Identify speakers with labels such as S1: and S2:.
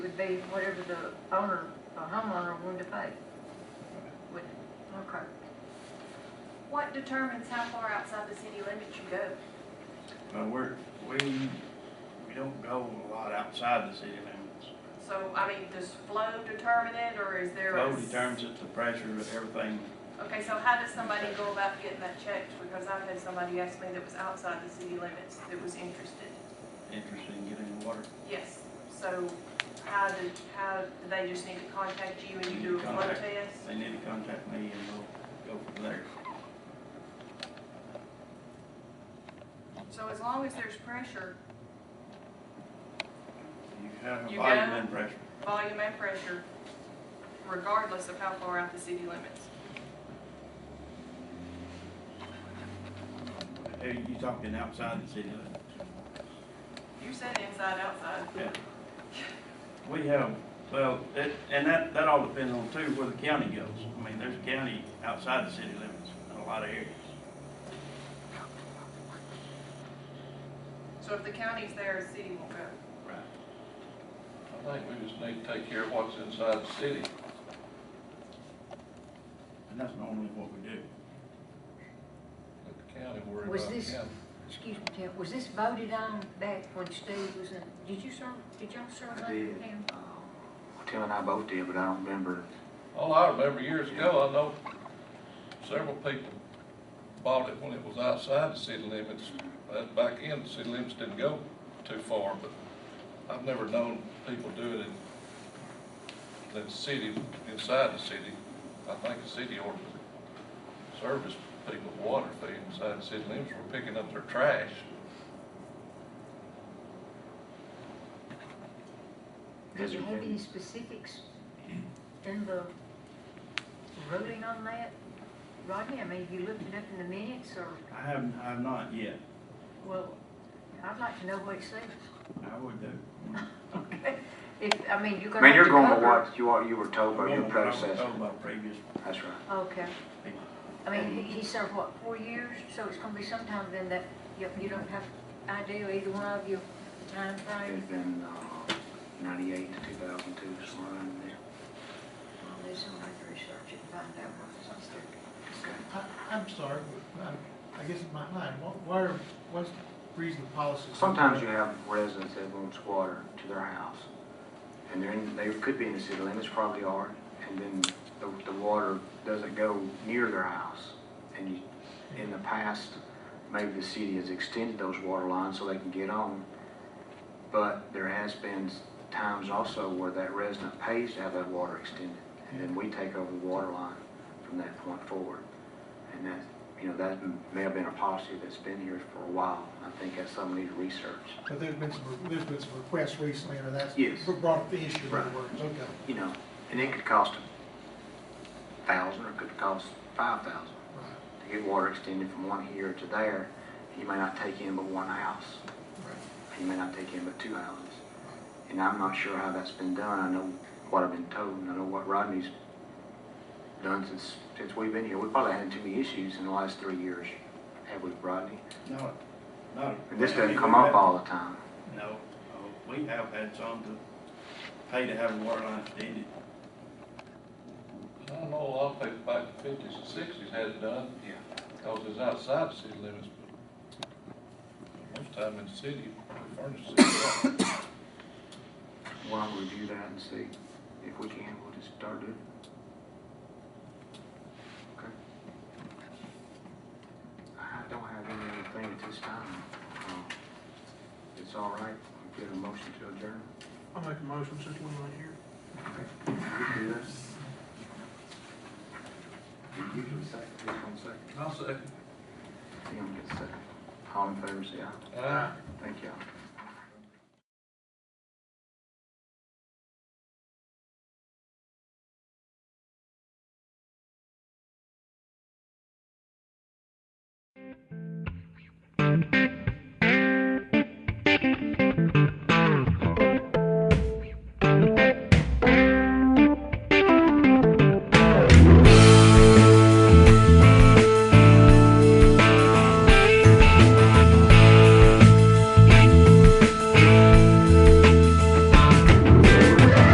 S1: be whatever the owner, the homeowner wanted to pay. Would- Okay.
S2: What determines how far outside the city limits you go?
S3: But we're, we, we don't go a lot outside the city limits.
S2: So, I mean, does flow determine it, or is there a?
S3: Flow determines it, the pressure of everything.
S2: Okay, so how does somebody go about getting that checked? Because I've had somebody ask me that was outside the city limits that was interested.
S3: Interested in getting water.
S2: Yes, so how do, how, do they just need to contact you and you do a flow
S3: Contact.
S2: test?
S3: They need to contact me and we'll go from there.
S2: So as long as there's pressure,
S3: You have a
S2: You
S3: volume
S2: go.
S3: and pressure.
S2: volume and pressure, regardless of how far out the city limits.
S3: Hey, you talking outside the city limits?
S2: You said inside, outside.
S3: Yeah. We have, well, it, and that, that all depends on too where the county goes. I mean, there's a county outside the city limits in a lot of areas.
S2: So if the county's there, the city will go.
S3: Right.
S4: I think we just need to take care of what's inside the city.
S3: And that's normally what we do.
S4: Let the county worry
S1: Was
S4: about the
S1: this-
S4: county.
S1: Excuse me, Tim, was this voted on back when Steve was in, did you serve, did y'all serve
S5: I
S1: under
S5: did.
S1: him?
S5: Uh, Tim and I both did, but I don't remember.
S4: All I remember years ago, I know several people bought it when it was outside the city limits. That back in, the city limits didn't go too far, but I've never known people do it in, in the city, inside the city. I think the city or service people with water, if they inside the city limits were picking up their trash.
S1: Did you have any specifics in the ruling on that? Rodney, I mean, have you looked it up in the minutes or,
S3: I haven't, I have not yet.
S1: well, I'd like to know what it says.
S3: I would do.
S1: Okay. If, I mean, you're
S5: I
S1: gonna.
S5: mean, you're
S1: have
S5: going
S1: cover-
S5: to what you are, you were told by your
S3: I
S5: predecessor.
S3: was told by previous
S5: That's right.
S1: Okay.
S3: people.
S1: I mean, he- he served, what, four years? So it's gonna be sometime then that you, you don't have idea either one of you the
S5: It
S1: timeframe
S5: had been, uh, ninety-eight to two thousand two, somewhere around there.
S1: Well, there's some way to research it, and find out what it's on there.
S6: I, I'm sorry, but I, I guess it's my mind, what, what are, what's the reason the policy?
S5: Sometimes you have residents that wants water to their house, and they're in, they could be in the city limits, probably are, and then the, the water doesn't go near their house. And you, in the past, maybe the city has extended those water lines so they can get on, but there has been times also where that resident pays to have that water extended, and then we take over the water line from that point forward. And that, you know, that may have been a policy that's been here for a while. I think that's something we need to research.
S6: But there's been some, there's been some requests recently, or that's
S5: Yes.
S6: brought up the issue, in other
S5: Right.
S6: words, okay.
S5: You know, and it could cost a thousand or it could cost five thousand
S6: right,
S5: to get water extended from one here to there. You may not take in but one house.
S6: right.
S5: You may not take in but two houses. And I'm not sure how that's been done. I know what I've been told and I know what Rodney's done since, since we've been here. We probably had too many issues in the last three years, have we, Rodney?
S3: No, no.
S5: And
S3: I
S5: this
S3: mean,
S5: doesn't come
S3: we
S5: up
S3: have-
S5: all the time.
S3: No, uh, we have had some to pay to have a water line extended.
S4: I don't know, a lot of people back in the fifties and sixties had it done.
S5: Yeah.
S4: Because it's outside the city limits, but most time in the city, we furnish the city. water.
S5: Why don't we do that and see if we can, we'll just start doing it. Okay. I don't have any other thing at this time. Um, It's all right, we get a motion to adjourn.
S6: I'll make a motion since we're not here.
S5: You can do that. You can second, you can second.
S4: I'll say.
S5: Tim gets second. All in favor, say aye.
S4: Aye.
S5: Thank you.